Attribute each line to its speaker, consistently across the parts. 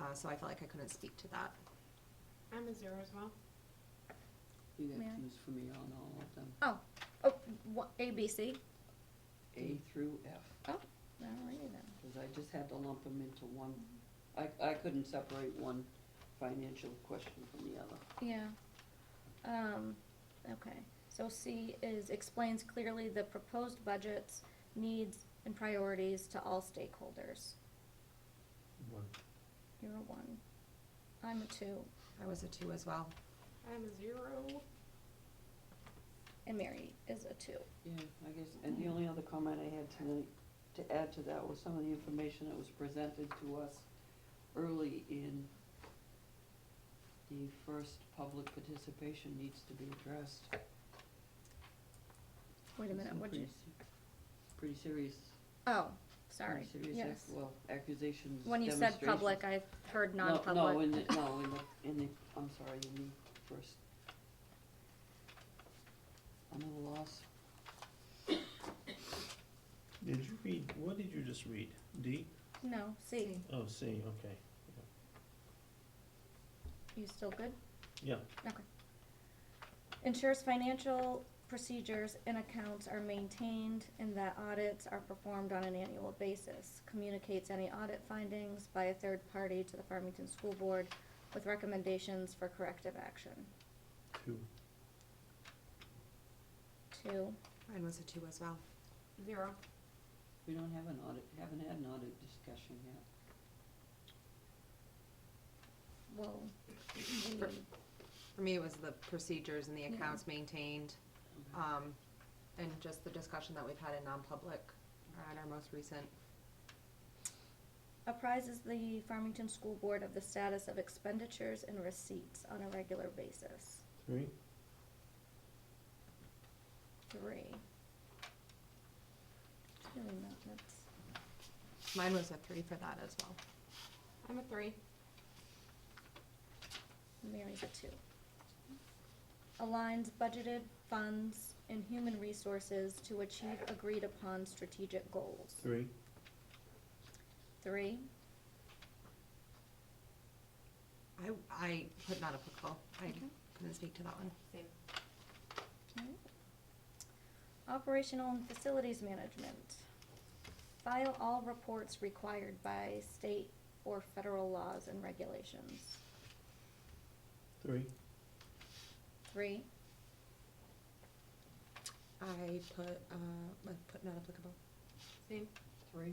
Speaker 1: Uh, so I felt like I couldn't speak to that.
Speaker 2: I'm a zero as well.
Speaker 3: You
Speaker 4: May I?
Speaker 3: got twos for me on all of them,
Speaker 4: Oh, oh, what, A, B, C?
Speaker 3: A through F,
Speaker 4: Oh, alrighty then.
Speaker 3: because I just had to lump them into one. I,
Speaker 4: Mm-hmm.
Speaker 3: I couldn't separate one financial question from the other.
Speaker 4: Yeah. Um, okay, so C is explains clearly the proposed budgets, needs, and priorities to all stakeholders.
Speaker 5: One.
Speaker 4: You're a one. I'm a two,
Speaker 1: I was a two as well.
Speaker 2: I'm a zero.
Speaker 4: and Mary is a two.
Speaker 3: Yeah, I guess, and the only other comment I had tonight to add to that was some of the information that was presented to us early in the first public participation needs to be addressed.
Speaker 4: Wait a
Speaker 3: Some
Speaker 4: minute, what'd you,
Speaker 3: pretty se- Pretty serious,
Speaker 4: oh,
Speaker 3: pretty
Speaker 4: sorry,
Speaker 3: serious,
Speaker 4: yes.
Speaker 3: ac- well, accusations,
Speaker 4: When you said public, I heard
Speaker 3: No,
Speaker 4: non-public.
Speaker 3: No, in the, no, in the, in the, I'm sorry, in the first. I'm at a loss.
Speaker 5: Did you read, what did you just read? D?
Speaker 4: No, C.
Speaker 5: Oh, C, okay.
Speaker 4: You still good?
Speaker 5: Yeah,
Speaker 4: Okay. Ensures financial procedures and accounts are maintained and that audits are performed on an annual basis. Communicates any audit findings by a third party to the Farmington School Board with recommendations for corrective action.
Speaker 5: two.
Speaker 4: Two,
Speaker 1: Mine was a two as well.
Speaker 2: Zero.
Speaker 3: We don't have an audit, haven't had an audit discussion yet.
Speaker 4: well, we-
Speaker 1: For- For me, it was the procedures and the
Speaker 4: Yeah.
Speaker 1: accounts maintained,
Speaker 3: Okay.
Speaker 1: um, and just the discussion that we've had in non-public or at our most recent.
Speaker 4: apprises the Farmington School Board of the status of expenditures and receipts on a regular basis.
Speaker 5: Three?
Speaker 4: Three. It's really not, that's.
Speaker 1: Mine was a three for that as well.
Speaker 2: I'm a three.
Speaker 4: Mary's a two. Aligns budgeted funds and human resources to achieve agreed upon strategic goals.
Speaker 5: Three.
Speaker 4: Three,
Speaker 1: I, I put not applicable. I
Speaker 4: Okay.
Speaker 1: couldn't speak to that one.
Speaker 2: Same.
Speaker 4: alright. Operational and facilities management. File all reports required by state or federal laws and regulations.
Speaker 5: Three.
Speaker 4: Three,
Speaker 1: I put, uh, I put not applicable.
Speaker 2: Same.
Speaker 3: Three,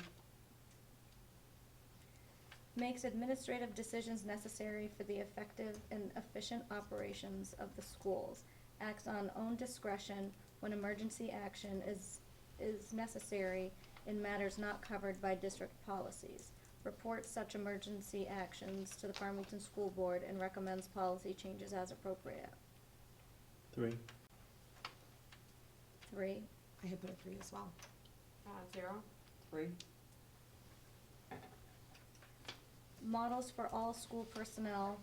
Speaker 4: makes administrative decisions necessary for the effective and efficient operations of the schools, acts on own discretion when emergency action is, is necessary in matters not covered by district policies, reports such emergency actions to the Farmington School Board and recommends policy changes as appropriate.
Speaker 5: Three.
Speaker 4: Three,
Speaker 1: I had put a three as well.
Speaker 2: Uh, zero.
Speaker 3: three,
Speaker 4: models for all school personnel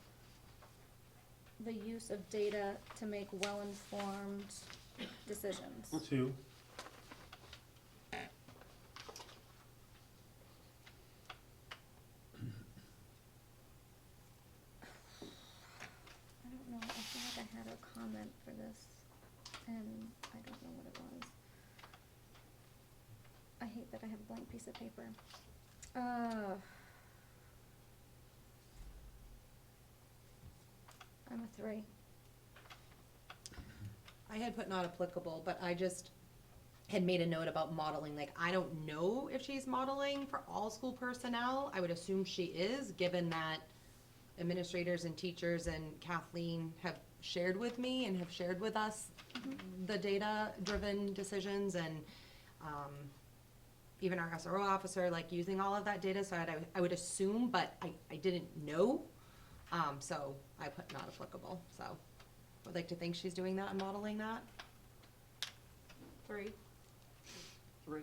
Speaker 4: the use of data to make well-informed decisions.
Speaker 5: Two.
Speaker 4: I don't know, I feel like I had a comment for this, and I don't know what it was. I hate that I have a blank piece of paper. Uh. I'm a three.
Speaker 1: I had put not applicable, but I just had made a note about modeling, like, I don't know if she's modeling for all school personnel. I would assume she is, given that administrators and teachers and Kathleen have shared with me and have shared with us the data-driven decisions and, um, even our SRO officer, like, using all of that data, so I'd, I would assume, but I, I didn't know. Um, so I put not applicable, so. Would like to think she's doing that and modeling that.
Speaker 2: Three.
Speaker 3: three.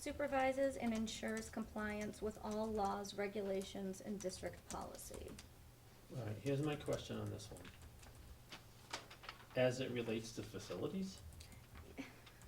Speaker 4: Supervises and ensures compliance with all laws, regulations, and district policy.
Speaker 5: All right, here's my question on this one. As it relates to facilities,